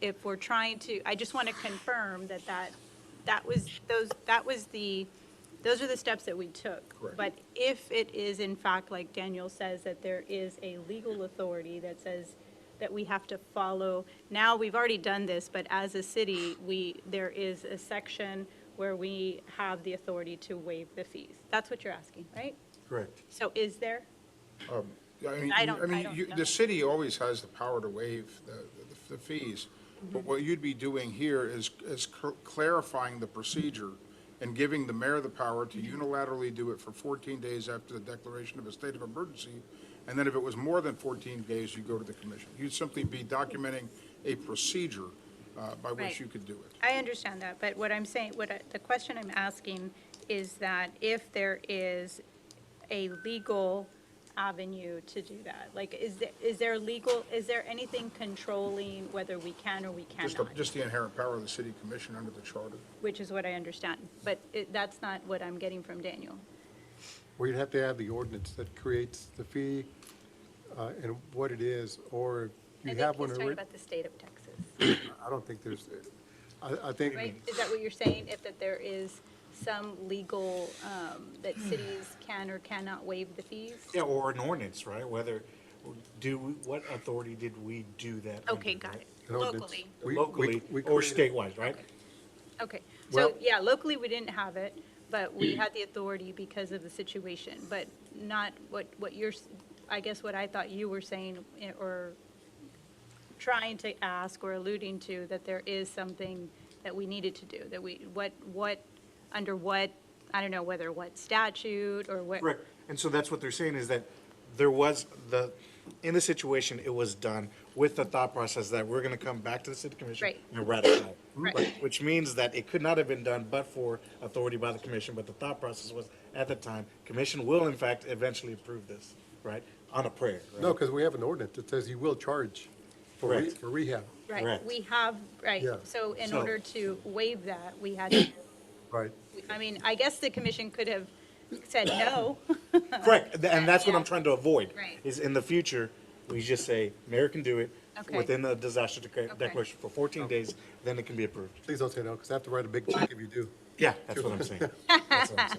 if we're trying to, I just want to confirm that that, that was, those, that was the, those are the steps that we took. Correct. But if it is in fact, like Daniel says, that there is a legal authority that says that we have to follow, now, we've already done this, but as a city, we, there is a section where we have the authority to waive the fees. That's what you're asking, right? Correct. So is there? I mean, I you- don't- I I mean, don't you- know. the city always has the power to waive the- the the fees, Mm-hmm. but what you'd be doing here is, is cl- clarifying the procedure and giving the mayor the power to Mm-hmm. unilaterally do it for 14 days after the declaration of a state of emergency, and then if it was more than 14 days, you go to the commission. You'd simply be documenting a procedure uh, by Right. which you could do it. I understand that, but what I'm saying, what, I- the question I'm asking is that if there is a legal avenue to do that, like, is there, is there legal, is there anything controlling whether we can or we Just, the- cannot? just the inherent power of the city commission under the charter. Which is what I understand, but it, that's not what I'm getting from Daniel. Well, you'd have to have the ordinance that creates the fee uh, and what it is, or you have one. already- the state of Texas. I don't think there's, I, I think. Right, is that what you're saying, if that there is some legal, um, that cities can or cannot waive the fees? Yeah, or an ordinance, right? Whether, do, we- what authority did we do that? Okay, under, got right? it, an ordinance. locally. We- we- Locally we or created- statewide, right? Okay, so, Well- yeah, locally, we didn't have it, but Mm. we had the authority because of the situation, but not what, what you're, s- I guess what I thought you were saying, eh, or trying to ask or alluding to, that there is something that we needed to do, that we, what, what, under what, I don't know, whether what statute or what. Correct. And so that's what they're saying is that there was the, in the situation, it was done with the thought process that we're going to come back to the city commission. Right. And ratify. Right. Which means that it could not have been done but for authority by the commission, but the thought process was at the time, commission will in fact eventually approve this, right? On a prayer. right? No, because we have an ordinance that says you will charge for re- Correct. for rehab, Right, Correct. we have, right, Yeah. so in So- order to waive that, we had to, right? I mean, I guess the commission could have said no. Correct, Th- and that's what I'm Yeah. trying to avoid. Right. Is in the future, we just say, mayor can do it Okay. within the disaster deca- Okay. declaration for 14 days, then it can be approved. Please don't say no, because I have to write a big check if you do. Yeah, that's what I'm saying. That's what I'm saying.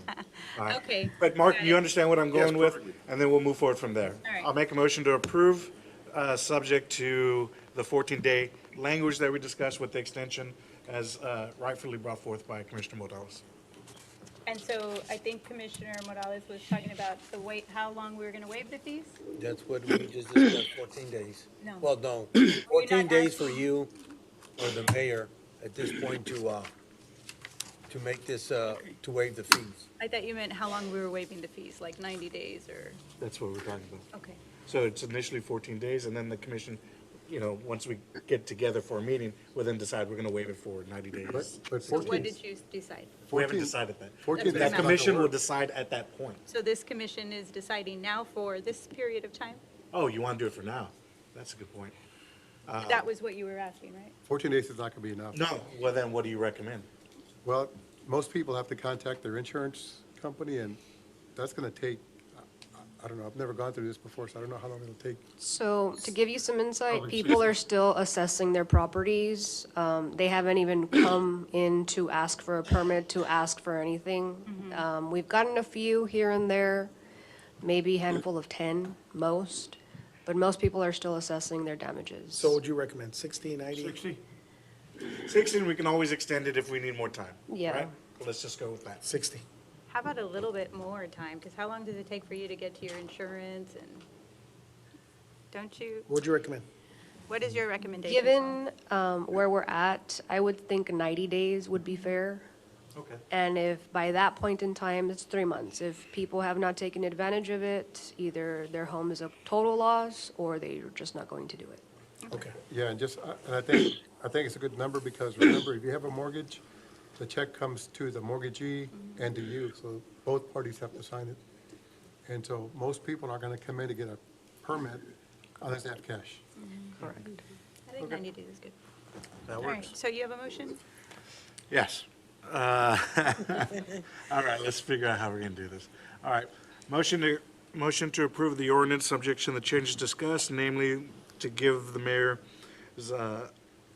All right. Okay. But Mark, Got it. you understand what I'm Yes, going with? perfectly. And then we'll move forward from there. All right. I'll make a motion to approve, uh, subject to the 14-day language that we discussed with the extension as uh, rightfully brought forth by Commissioner Morales. And so I think Commissioner Morales was talking about the wait, how long we were going to waive the fees? That's what we just discussed, fourteen days. No. Well, no, We're not fourteen days for asking- you or the mayor at this point to, uh, to make this, uh, to waive the fees. I thought you meant how long we were waiving the fees, like 90 days or, That's what we're talking about. okay. So it's initially 14 days, and then the commission, you know, once we get together for a meeting, will then decide we're going to waive it for 90 But days. but So what 14, did you decide? We haven't 14 decided that. 14 That's days is That not gonna commission will work. decide at that point. So this commission is deciding now for this period of time? Oh, you want to do it for now? That's a good point. That was what you were asking, right? 14 days is not going to be enough. No, well then what do you recommend? Well, most people have to contact their insurance company, and that's going to take, I- I- I don't know, I've never gone through this before, so I don't know how long it'll take. So to give you some Oh, insight, excuse people are still assessing their properties. Um, They haven't even come in to ask for a permit, to ask for Mm-hmm. anything. Um, We've gotten a few here and there, maybe a handful of 10, most, but most people are still assessing their damages. So what would you recommend, 60, 90? Sixteen, we can always extend it if we need more time. Yeah. right? Let's just go with that. 60. How about a little bit more time? Because how long does it take for you to get to your insurance and, don't you, What would you recommend? what is your recommendation? Given um, where we're at, I would think 90 days would be fair. Okay. And if by that point in time, it's three months, if people have not taken advantage of it, either their home is a total loss or they're just not going to do it. Okay. Yeah, and just, I- and I think, I think it's a good number, because remember, if you have a mortgage, the check comes to the mortgagee and to you, so both parties have to sign it. And so most people aren't going to come in to get a permit unless they have cash. Correct. I think 90 days is good. That All right, works. so you have a motion? Yes. Uh, All right, let's figure out how we're going to do this. All right, motion to, motion to approve the ordinance subject to the changes discussed, namely to give the mayor's uh,